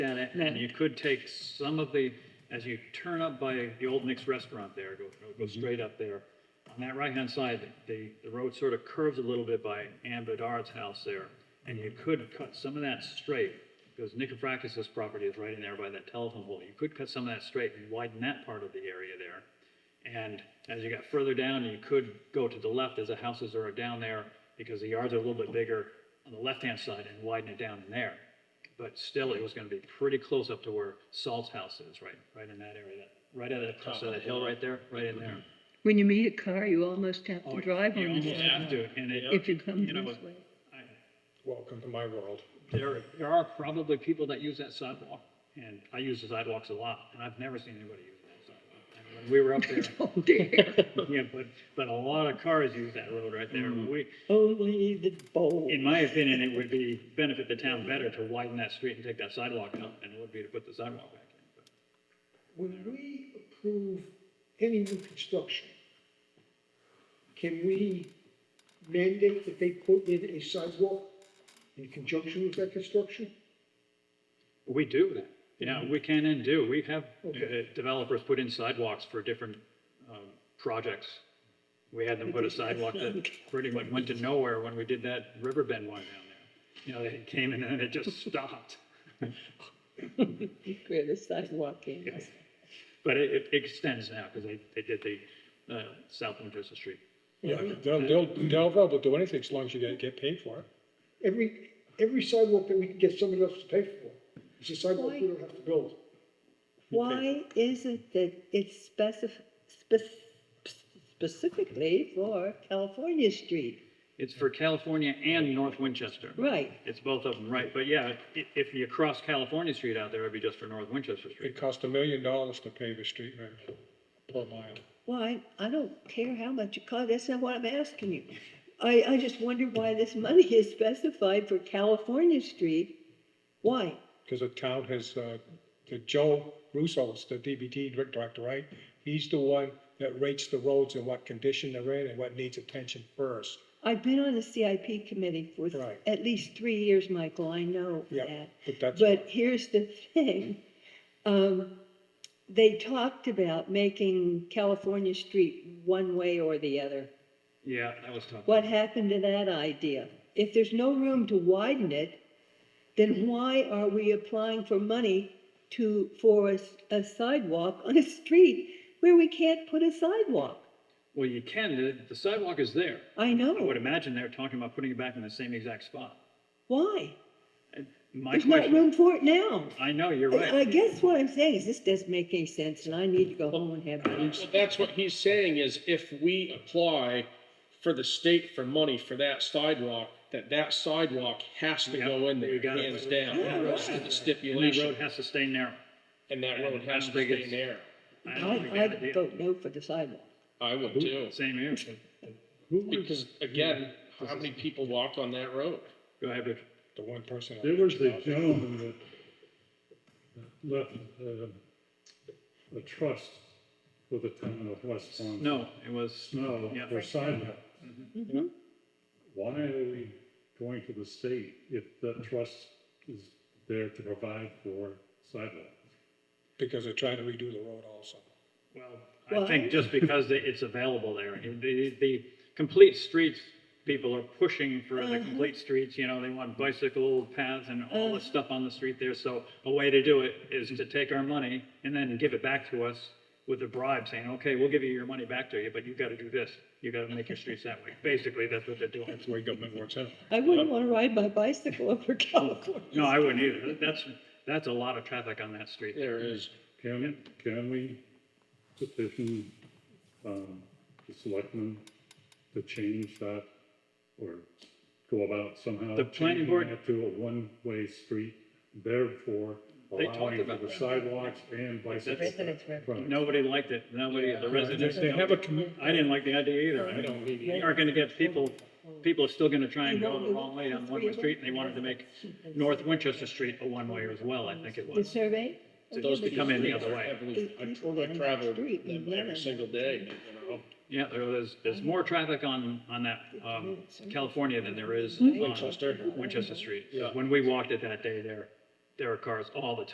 at it, and you could take some of the, as you turn up by the Old Nick's Restaurant there, go, go straight up there. On that right-hand side, the, the road sort of curves a little bit by Ann Bedard's house there, and you could cut some of that straight, because Nicofracas's property is right in there by that telephone pole. You could cut some of that straight and widen that part of the area there. And as you got further down, you could go to the left as the houses are down there, because the yards are a little bit bigger on the left-hand side and widen it down in there. But still, it was gonna be pretty close up to where Salt's house is, right, right in that area, that- right at the top of that hill right there, right in there. When you meet a car, you almost have Oh, to drive you on the almost side have to, and it- if you come you know, this way. I- Welcome to my world. There, there are probably people that use that sidewalk, and I use the sidewalks a lot, and I've never seen anybody use that sidewalk. And when we were up there, Oh dear. yeah, but, but a lot of cars use that road right there. Mm-hmm. We, Only the bowl. in my opinion, it would be, benefit the town better to widen that street and take that sidewalk out than it would be to put the sidewalk back in. But When we approve any new construction, can we mandate that they put in a sidewalk in conjunction with that construction? We do that. Yeah, we can and do. We have Okay. uh, developers put in sidewalks for different um, projects. We had them put a sidewalk that pretty much went to nowhere when we did that Riverbend one down there. You know, it came in and it just stopped. Where the sidewalk is. But it it extends now because they, they did the uh, South Winchester Street. Yeah, they'll, they'll, they'll probably do anything as long as you get, get paid for it. Every, every sidewalk that we can get somebody else to pay for, it's a sidewalk we don't have to build. Why is it that it's specif- spec- specifically for California Street? It's for California and North Winchester. Right, It's both of them, right. But yeah, i- if you cross California Street out there, it'd be just for North Winchester Street. It costs a million dollars to pave a street right per mile. well, I, I don't care how much it costs, that's not what I'm asking you. I, I just wonder why this money is specified for California Street. Why? Because the town has, uh, the Joe Russo, is the DBT director, right? He's the one that rates the roads and what condition they're in and what needs attention first. I've been on the CIP committee for Right. at least three years, Michael, I know Yeah, that. but that's, But here's the thing, um, they talked about making California Street one way or the other. Yeah, that was tough. What happened to that idea? If there's no room to widen it, then why are we applying for money to, for a, s- a sidewalk on a street where we can't put a sidewalk? Well, you can, the, the sidewalk is there. I I would know, imagine they're talking about putting it back in the same exact spot. why? And My There's not question, room for it now. I know, you're I I right. guess what I'm saying is this doesn't make any sense and I need to go home and have Well, lunch. that's what he's saying is if we apply for the state for money for that sidewalk, that that sidewalk has to go in You there, got it. hands down. That's the And that road stipulation, has to stay narrow. and that road I has don't to think stay it's- there. I I, don't think they I'd had a vote no for the sidewalk. I would too, deal. Same here. because again, how many people walk on that road? Go ahead, Rich. the one person. I There was the mentioned. gentleman that left uh, a trust with the town of West Palm. No, it was, Snow Yeah. for sidewalk. Why are we going to the state if that trust is there to provide for sidewalks? Because they're trying to redo the road also. well, I think just because they- it's available there. And The, the complete streets, people are pushing for the complete streets, you know, they want bicycle paths and all this stuff on the street there. So a way to do it is to take our money and then give it back to us with a bribe saying, okay, we'll give you your money back to you, but you've got to do this. You've got to make your streets that way. Basically, that's what they're doing. That's the way government works out. I wouldn't want to ride my bicycle over California. Oh, No, I wouldn't either. That's, that's a lot of traffic on that street. There is, Can, can we petition, um, the selectmen to change that? Or go about somehow The planning changing board- that to a one-way street, therefore They talked allowing about for the that. sidewalks and bicycles. Residents Right. Nobody liked it. Nobody, the residents. They have a commu- I didn't like the idea either. I don't need. You aren't gonna get people, people are still gonna try and go the wrong way on one-way street, and they wanted to make North Winchester Street a one-way as well, I think it The was. survey? those to come in the streets other are way. heavily- I People I down the travel street, them you every live. single day, you know? Yeah, there was, there's more traffic on, on that, um, California than Hmm? there is on Winchester. Winchester Street. Yeah. When we walked it that day there, there were cars all the time.